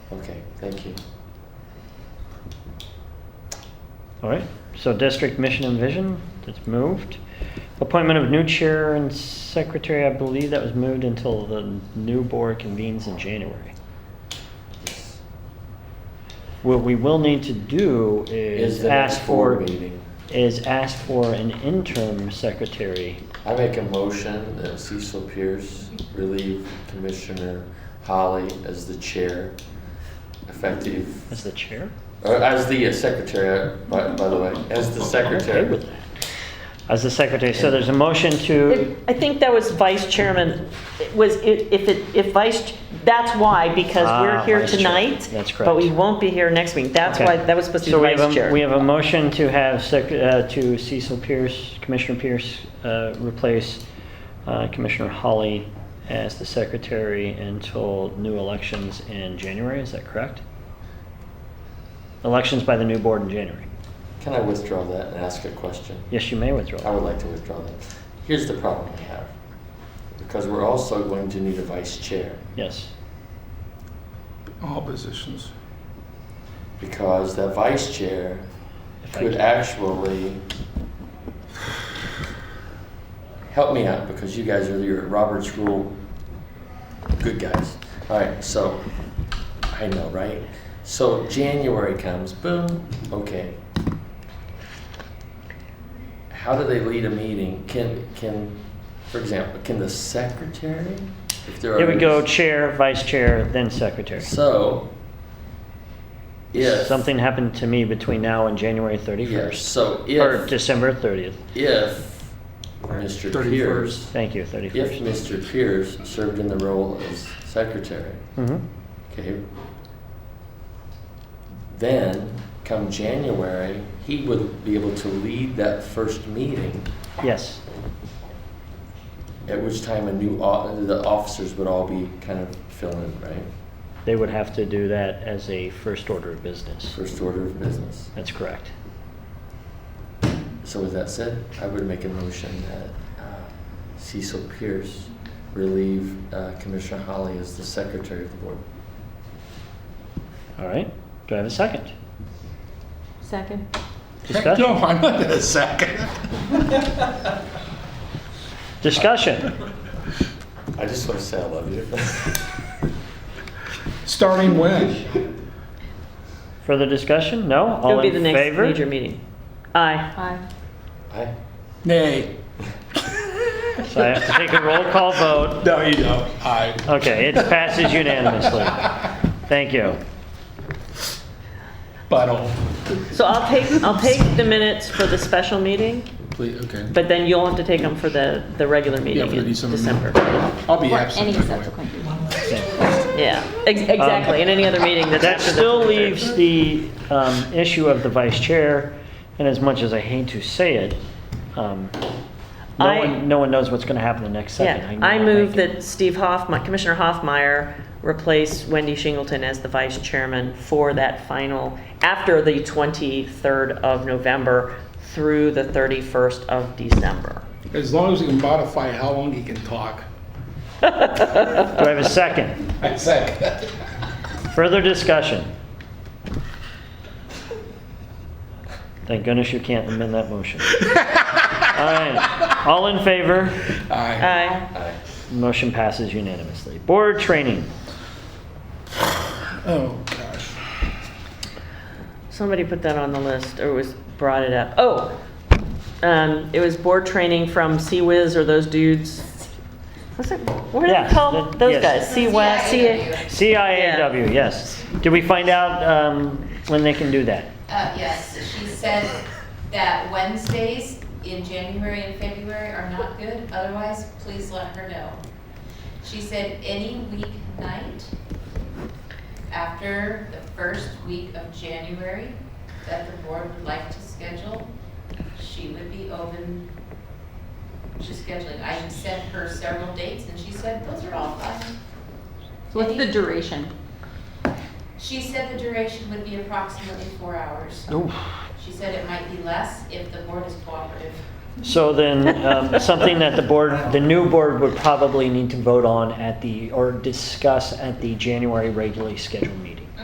Okay, thank you. All right, so district mission and vision, that's moved. Appointment of new chair and secretary, I believe that was moved until the new board convenes in January. What we will need to do Is is the next ask for, board meeting. is ask for an interim secretary. I make a motion that Cecil Pierce relieve Commissioner Holly as the chair, effective, As the chair? or as the uh, secretary, by, by the way, as the I'm okay secretary. with that. As the secretary, so there's a motion to, It- I think that was vice chairman, It was, i- if it, if vice, that's why, because we're Ah, here vice chair. tonight. That's But we correct. won't be here next week. That's Okay. why, that was supposed to be so we have, vice a- chair. we have a motion to have sec, uh, to Cecil Pierce, Commissioner Pierce, uh, replace, uh, Commissioner Holly as the secretary until new elections in January, is that correct? Elections by the new board in January. Can I withdraw that and ask a question? Yes, you may withdraw. I would like to withdraw that. Here's the problem we have, because we're also going to need a vice chair, Yes, All positions. because that vice chair If I could can- actually help me out, because you guys are your Robert's Rule good guys. All right, so, I know, right? So January comes, boom, okay. How do they lead a meeting? Can, can, for example, can the secretary, if there are. Here we go, chair, vice chair, then secretary. So, if. Something happened to me between now and January Yes, 31st, so or if, December 30th, if Mr. 31st. Pierce, thank you, if 31st. Mr. Pierce served in the role as secretary, Mhm. Okay. Then, come January, he would be able to lead that first meeting, Yes, at which time a new, o- the officers would all be kind of filling, right? they would have to do that as a first order of business. First order of business. That's correct. So with that said, I would make a motion that uh, Cecil Pierce relieve uh, Commissioner Holly as the secretary of the board. All right, do I have a second? Second. Heck no, Discussion? I'm not in a second. Discussion? I just want to say I love you. Starting when? Further discussion? No? It'll All be the in next major favor? meeting. Aye. Aye. Nay. So I have to take a roll call vote. No, you don't. I. Okay, it passes unanimously. Thank you. Buttle. So I'll take, I'll take the minutes for the special meeting, Please, okay. but then you'll have to take them for the, the regular meeting for the in December December. meeting. I'll be Or absent. any by the way. subsequent. Yeah, ex- exactly, in any other meeting that's That after the still 23rd. leaves the um, issue of the vice chair, and as much as I hate to say it, um, no I- one, no one knows what's going to happen the next second. Yeah, know I that. move that Steve Hoffmeyer, Commissioner Hoffmeyer, replace Wendy Shingleton as the vice chairman for that final, after the 23rd of November through the 31st of December. As long as you can modify how long he can talk. Do I have a second? I second. Further discussion? Thank goodness you can't amend that motion. All right, all in favor? Aye. Aye. Aye. Motion passes unanimously. Board training. Oh, gosh. Somebody put that on the list, or was, brought it up. Oh, um, it was board training from Sea-Wiz or those dudes. What's it, what are Yeah, they called, the- those yes. guys? Sea-Wiz, Sea- CIAW, yes. Did we find out um, when they can do that? Uh, yes, she said that Wednesdays in January and February are not good, otherwise, please let her know. She said any weeknight after the first week of January that the board would like to schedule, she would be open to scheduling. I sent her several dates and she said, those are all fine. What's the duration? She said the duration would be approximately four hours. She said it might be less if the board is cooperative. So then, um, something that the board, the new board would probably need to vote on at the, or discuss at the January regularly scheduled meeting.